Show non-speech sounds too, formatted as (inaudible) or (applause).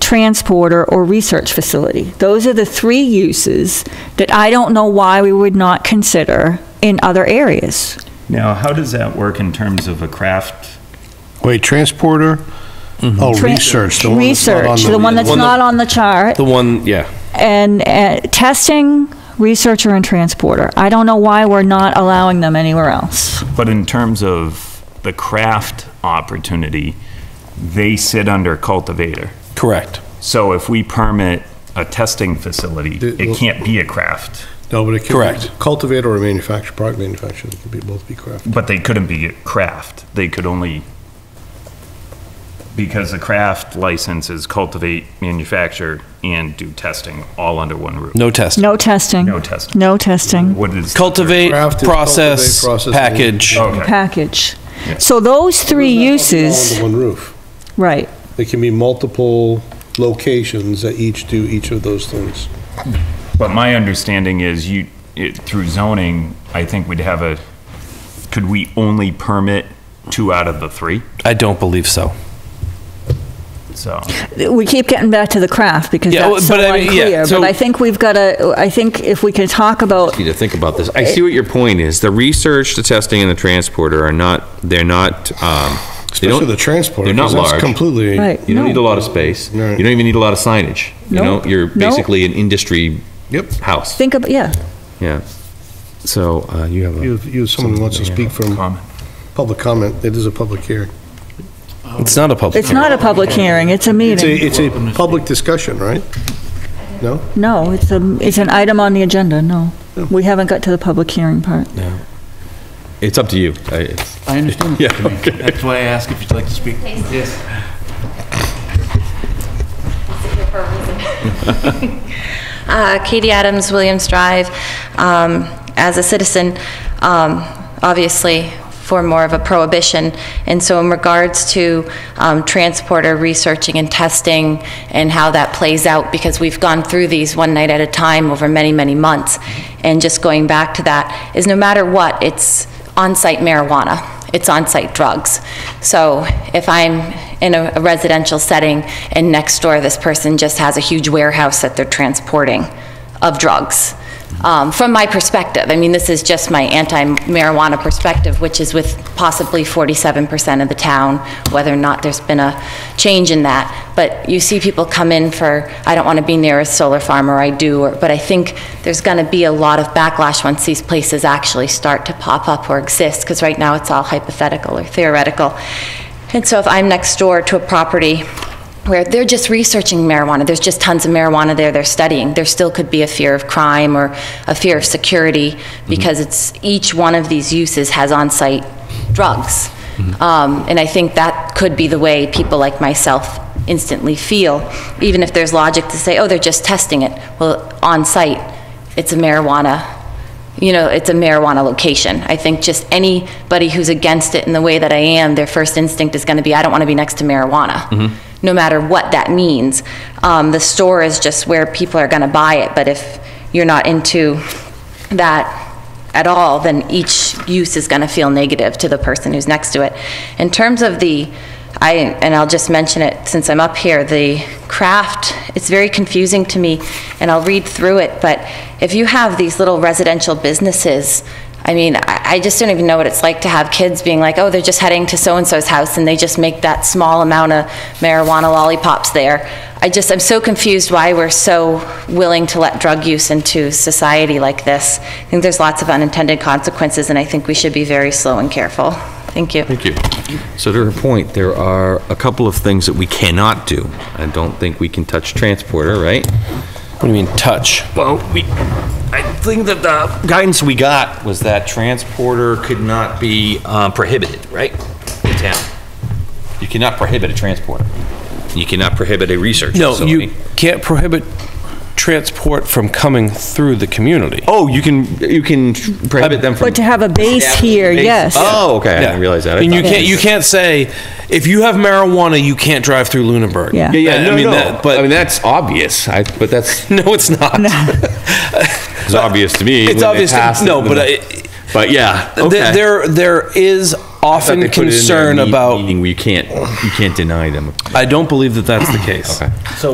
transporter, or research facility. Those are the three uses that I don't know why we would not consider in other areas. Now, how does that work in terms of a craft? Wait, transporter? Oh, Tran- research, the one that's not on Research, the. the one that's One that- not on the chart, The one, yeah. and uh, testing, researcher, and transporter. I don't know why we're not allowing them anywhere else. But in terms of the craft opportunity, they sit under cultivator. Correct. So if we permit a testing facility, it can't be a craft, No, but it can. Correct. Cultivator or manufacturer, product manufacturer, it could be, both be craft. but they couldn't be a craft. They could only, because the craft license is cultivate, manufacture, and do testing all under one roof. No test. No testing. No testing. No testing. What is? Cultivate, Craft is process, cultivate, process, and- package. Okay, Package. So those three All uses, under one roof. right. There can be multiple locations that each do each of those things. but my understanding is you, it, through zoning, I think we'd have a, could we only permit two out of the three? I don't believe so. So. We keep getting back to the craft because Yeah, that's so well, but I mean, yeah, unclear. But so- I think we've got to, I think if we can talk about, need to think about this. I see what your point is. The research, the testing, and the transporter are not, they're not, um, they Especially don't, the transporter. they're not 'cause that's large. Completely. right, you don't need no. a lot of space. You Right. don't even need a lot of signage. You Nope. know, you're Nope. basically an industry Yep. house. Think about, yeah, Yeah. So, uh, you have You, a, you, someone who wants to speak from Comment. public comment, it is a public hearing. It's not a public. it's not a public hearing, it's a It's a, meeting. it's a public discussion, right? No? No, it's a, it's an item on the agenda, no. We haven't got to the public hearing part. it's up to you. I- it's- I understand. Yeah, Mr. Mayor. That's why I asked if you'd like to speak. Yes. (laughs) Uh, Katie Adams, Williams Drive. Um, As a citizen, um, obviously, for more of a prohibition, and so in regards to um, transporter researching and testing and how that plays out, because we've gone through these one night at a time over many, many months, and just going back to that, is no matter what, it's on-site marijuana, it's on-site drugs. So if I'm in a a residential setting and next door this person just has a huge warehouse that they're transporting of drugs, um, from my perspective, I mean, this is just my anti-marijuana perspective, which is with possibly 47% of the town, whether or not there's been a change in that. But you see people come in for, I don't want to be near a solar farm, or I do, or- but I think there's going to be a lot of backlash once these places actually start to pop up or exist, because right now it's all hypothetical or theoretical. And so if I'm next door to a property where they're just researching marijuana, there's just tons of marijuana there they're studying, there still could be a fear of crime or a fear of security because it's, each one of these uses has on-site drugs. Um, And I think that could be the way people like myself instantly feel, even if there's logic to say, oh, they're just testing it. Well, on-site, it's a marijuana you know, it's a marijuana location. I think just anybody who's against it in the way that I am, their first instinct is going to be, I don't want to be next to marijuana, no matter what that means. Um, the store is just where people are going to buy it, but if you're not into that at all, then each use is going to feel negative to the person who's next to it. In terms of the, I, and I'll just mention it since I'm up here, the craft, it's very confusing to me, and I'll read through it, but if you have these little residential businesses, I mean, I I just don't even know what it's like to have kids being like, oh, they're just heading to so-and-so's house, and they just make that small amount of marijuana lollipops there. I just, I'm so confused why we're so willing to let drug use into society like this. I think there's lots of unintended consequences, and I think we should be very slow and careful. Thank you. thank you. So to her point, there are a couple of things that we cannot do. I don't think we can touch transporter, right? What do you mean touch? Well, we, I think that the guidance we got was that transporter could not be uh, prohibited, right? In town. You cannot prohibit a transporter. You cannot prohibit a research No, facility. you can't prohibit transport from coming through the community. Oh, you can, you can prohibit them from. But to have a base here, yes. Oh, okay, I Yeah. didn't realize that. I And you thought- can't, you can't say, if you have marijuana, you can't drive through Lunenburg. Yeah. Yeah, I yeah, no, mean, no, that- but, I mean, But, that's obvious, I, but that's, no, it's not. (laughs) it's obvious to me. when It's they obvious, to- passed it, no, but then- I- But yeah, Th- okay. There, there is I thought they often put it in their concern meet- about, Meeting where you can't, you can't deny them. I don't believe that that's the case.